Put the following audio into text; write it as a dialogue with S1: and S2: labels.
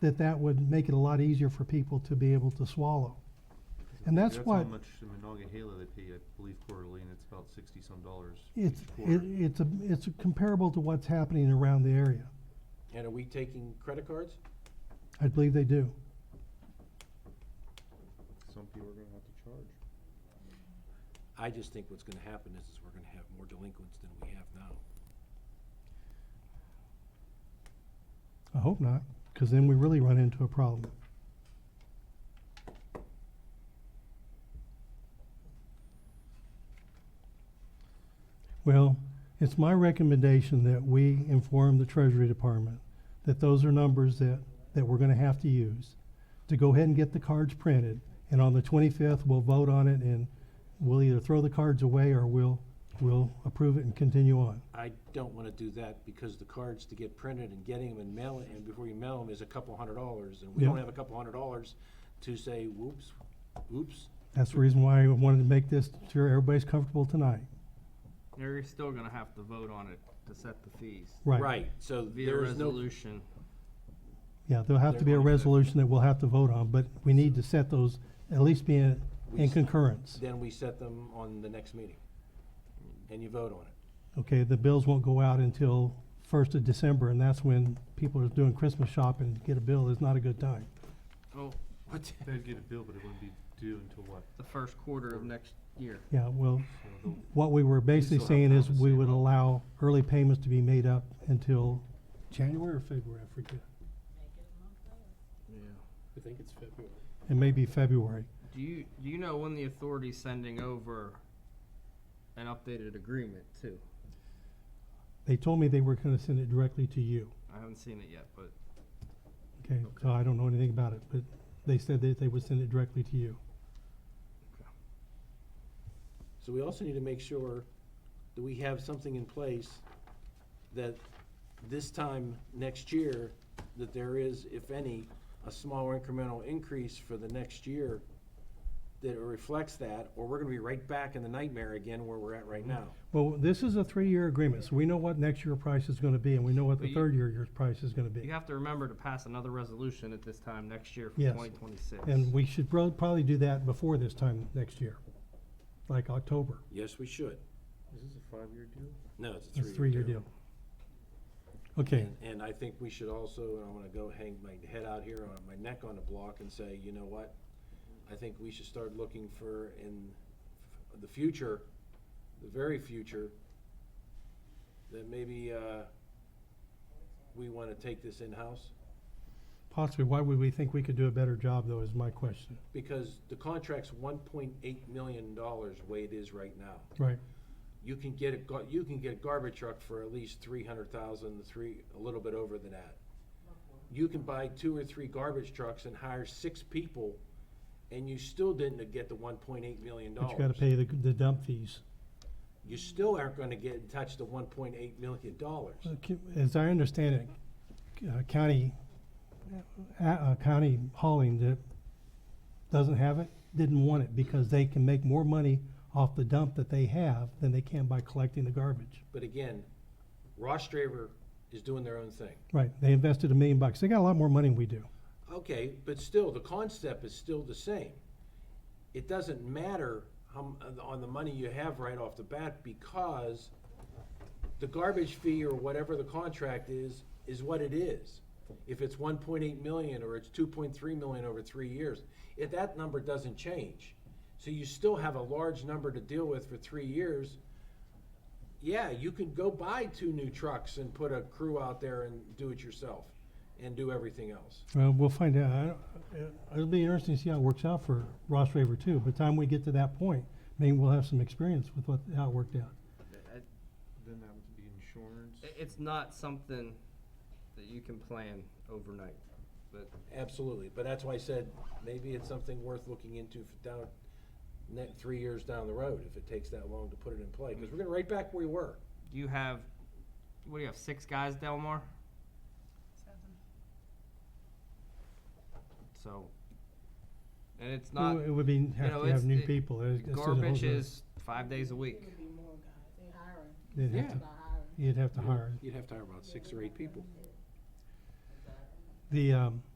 S1: that that would make it a lot easier for people to be able to swallow. And that's
S2: That's
S1: what-
S2: how much the Monongahela they pay, I believe quarterly, and it's about sixty-some dollars each
S1: It's, it,
S2: quarter.
S1: it's, a- it's comparable to what's happening around the area.
S3: And are we taking credit cards?
S1: I believe they do.
S2: Some people are gonna have to charge.
S3: I just think what's gonna happen is, is we're gonna have more delinquents than we have now.
S1: I hope not, because then we really run into a problem. Well, it's my recommendation that we inform the Treasury Department that those are numbers that, that we're gonna have to use to go ahead and get the cards printed. And on the twenty-fifth, we'll vote on it and we'll either throw the cards away or we'll, we'll approve it and continue on.
S3: I don't wanna do that because the cards to get printed and getting them and mailing, and before you mail them is a couple hundred dollars. And we
S1: Yeah.
S3: don't have a couple hundred dollars to say, whoops, oops,
S1: That's the reason why I wanted to make this, sure everybody's comfortable tonight.
S4: You're still gonna have to vote on it to set the fees.
S3: right, so
S4: Via
S3: there is no.
S4: resolution.
S1: Yeah, there'll have to be a
S4: They're going to-
S1: resolution that we'll have to vote on, but we need to set those, at least be in,
S3: We
S1: in
S3: s-
S1: concurrence.
S3: Then we set them on the next meeting, and you vote on it.
S1: Okay, the bills won't go out until first of December, and that's when people are doing Christmas shopping, get a bill is not a good time.
S4: Oh,
S3: What?
S2: They'd get a bill, but it wouldn't be due until what?
S4: the first quarter of next year.
S1: Yeah, well,
S2: So they'll-
S1: what we were basically
S2: still have
S1: saying
S2: time
S1: is
S2: to
S1: we
S2: save
S1: would
S2: up.
S1: allow early payments to be made up until January or February, I forget.
S4: Yeah.
S3: I think it's February.
S1: It may be February.
S4: Do you, do you know when the authority's sending over an updated agreement too?
S1: They told me they were gonna send it directly to you.
S4: I haven't seen it yet, but
S1: Okay, so I don't know anything about it, but they said that they would send it directly to you.
S3: So we also need to make sure that we have something in place that this time next year, that there is, if any, a small incremental increase for the next year that reflects that, or we're gonna be right back in the nightmare again where we're at right
S1: Mm-hmm.
S3: now.
S1: Well, this is a three-year agreement, so we know what next year price is gonna be, and we know what
S4: But
S1: the
S4: you-
S1: third year year's price is gonna
S4: you
S1: be.
S4: have to remember to pass another resolution at this time next year for
S1: Yes.
S4: twenty twenty-six.
S1: And we should prob- probably do that before this time next year, like October.
S3: Yes, we should.
S2: Is this a five-year deal?
S3: No, it's a
S1: It's a
S3: three-year deal.
S1: three-year deal. Okay,
S3: And, and I think we should also, and I'm gonna go hang my head out here on my neck on the block and say, you know what? I think we should start looking for in f- the future, the very future, that maybe, uh, we wanna take this in-house.
S1: possibly, why would we think we could do a better job, though, is my question.
S3: Because the contract's one point eight million dollars the way it is right now.
S1: Right,
S3: You can get a, gar- you can get a garbage truck for at least three hundred thousand, three, a little bit over than that. You can buy two or three garbage trucks and hire six people, and you still didn't get the one point eight million
S1: but
S3: dollars.
S1: you gotta pay the, the dump fees.
S3: You still aren't gonna get in touch the one point eight million dollars.
S1: Okay, As I understand it, c- uh, county, uh, uh, county hauling that doesn't have it, didn't want it because they can make more money off the dump that they have than they can by collecting the garbage.
S3: But again, Ross Draver is doing their own thing.
S1: Right, they invested a million bucks. They got a lot more money than we do.
S3: Okay, but still, the concept is still the same. It doesn't matter how, m- uh, on the money you have right off the bat, because the garbage fee or whatever the contract is, is what it is. If it's one point eight million, or it's two point three million over three years, if that number doesn't change, so you still have a large number to deal with for three years, yeah, you can go buy two new trucks and put a crew out there and do it yourself, and do everything else.
S1: Well, we'll find out. I don't- uh, It'll be interesting to see how it works out for Ross Raver too. By the time we get to that point, maybe we'll have some experience with what, how it worked out.
S4: It-
S2: Then that would be insurance.
S4: It's not something that you can plan overnight, but
S3: Absolutely, but that's why I said, maybe it's something worth looking into for down, net, three years down the road, if it takes that long to put it in play, because we're gonna right back where we were.
S4: you have, what do you have, six guys, Delmar? So, and it's
S1: It
S4: not,
S1: would- It would be, have
S4: know,
S1: to have
S4: it's-
S1: new
S4: it-
S1: people. It's- it's a whole
S4: garbage
S1: other-
S4: is five days a week.
S5: It would be more guys, they hiring,
S1: they'd have
S4: yeah.
S1: to-
S5: about hiring.
S1: You'd have to hire.
S3: You'd have to hire about six or eight people.
S1: The, um,